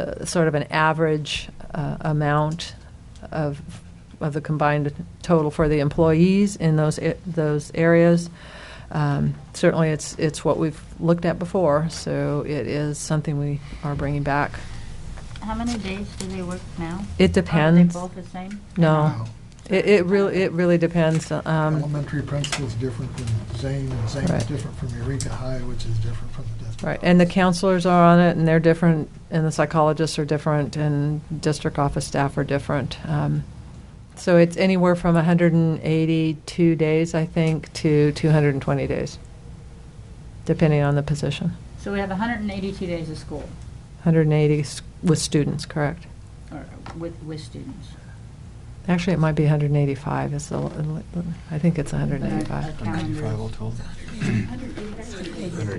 uh, sort of an average uh, amount of, of the combined total for the employees in those, a- those areas. Um, Certainly, it's, it's what we've looked at before, so it is something we are bringing back. How many days do they work now? It depends. Are they both the same? No. It, it really, it really depends. um, Elementary principal's different than Zane, and Zane is Right. different from Eureka High, which is different from the district. Right, and the counselors are on it, and they're different, and the psychologists are different, and district office staff are different. Um, So it's anywhere from 182 days, I think, to 220 days, depending on the position. So we have 182 days of school, 180 s- with students, correct? or with, with students. Actually, it might be 185, is the, I think it's Our 185. calendar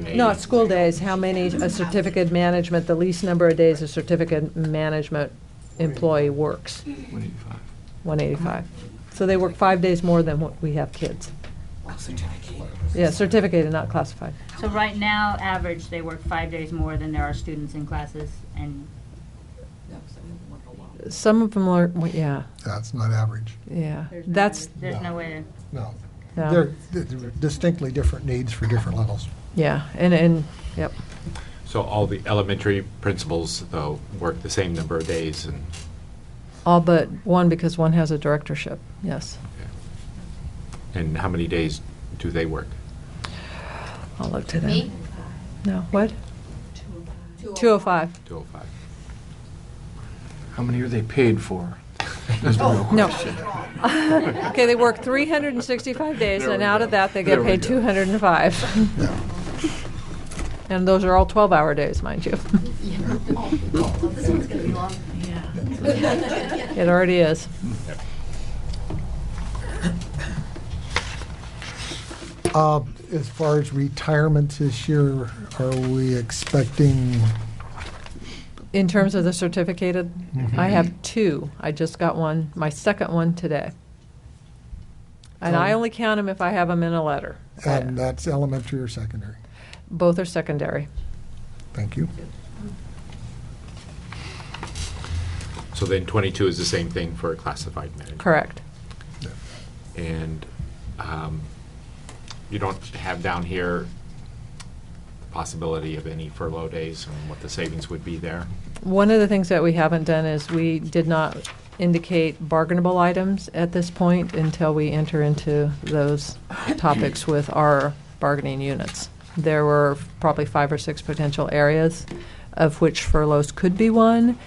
is- Not school days, how many, a certificate management, the least number of days a certificate management employee works. 185. So they work five days more than what we have kids. Yeah, certificated, not classified. So right now, average, they work five days more than there are students in classes, and Some of them are, well, yeah, That's not average, yeah. there's no, That's, there's no way no. No. They're they're distinctly different needs for different levels. yeah, and, and, yep. So all the elementary principals, though, work the same number of days and, All but one, because one has a directorship, yes. and how many days do they work? I'll look to them. No, what? 205. 205. How many are they paid for? That's the real No. question. Okay, they work 365 days, There and we out go. of that, they There get we paid go. 205. And those are all 12-hour days, mind you. It already is. Uh, As far as retirement this year, are we expecting, In terms of the certificated, I have Mm-hmm. two. I just got one, my second one today. And I Um, only count them if I have them in a letter. and uh, that's elementary or secondary? Both are secondary. Thank you. So then 22 is the same thing for a classified manager? Correct. And um, you don't have down here the possibility of any furlough days and what the savings would be there? One of the things that we haven't done is we did not indicate bargainable items at this point until we enter into those topics with our bargaining units. There were probably five or six potential areas of which furloughs could be one.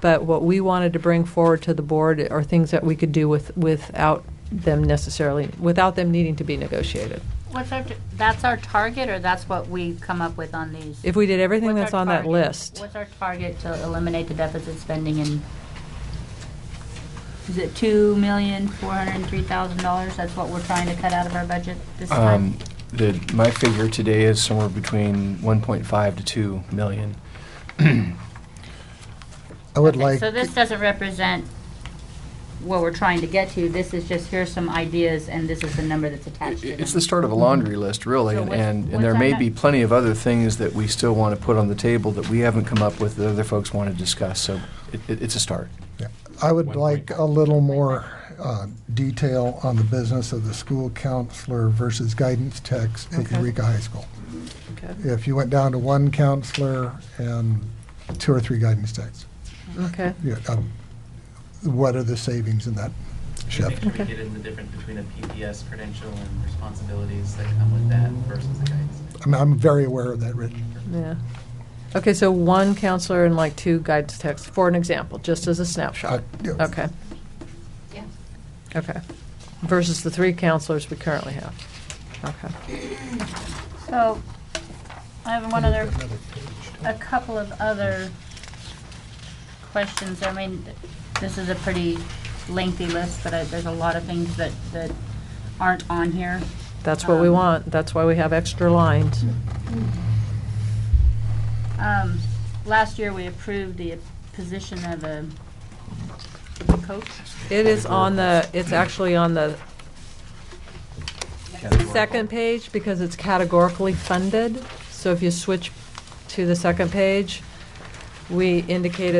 But what we wanted to bring forward to the board are things that we could do with, without them necessarily, without them needing to be negotiated. What's our, that's our target, or that's what we come up with on these? If we did everything What's that's our on that target? list, What's our target to eliminate the deficit spending in, is it two million, four hundred and three thousand dollars? That's what we're trying to cut out of our budget this Um, time? the, my figure today is somewhere between 1.5 to 2 million. I would Okay, like, So this doesn't represent what we're trying to get to. This is just, here's some ideas, and this is the number that's attached to them. It's the start of a laundry list, really, So and, what's- and what's there our may ne- be plenty of other things that we still want to put on the table that we haven't come up with that other folks want to discuss, so it, it- it's a start. I would One like point. a little more uh, detail on the business of the school counselor versus guidance techs at Okay. Eureka High School. okay, If you went down to one counselor and two or three guidance techs, okay. yeah, um, what are the savings in that shift? Make sure we get in the difference between a PPS credential and responsibilities that come with that versus the guidance. I'm, I'm very aware of that, Rich. Yeah. Okay, so one counselor and like two guidance texts, for an example, just as a snapshot. Uh, yeah. Okay. Okay. Versus the three counselors we currently have. Okay. So, I have one other, a couple of other questions. I mean, th- this is a pretty lengthy list, but I- there's a lot of things that, that aren't on here. That's what we Um, want. That's why we have extra lines. Um, Last year, we approved the position of a coach. It is on the, it's actually on the second page because it's categorically funded. So if you switch to the second page, we indicated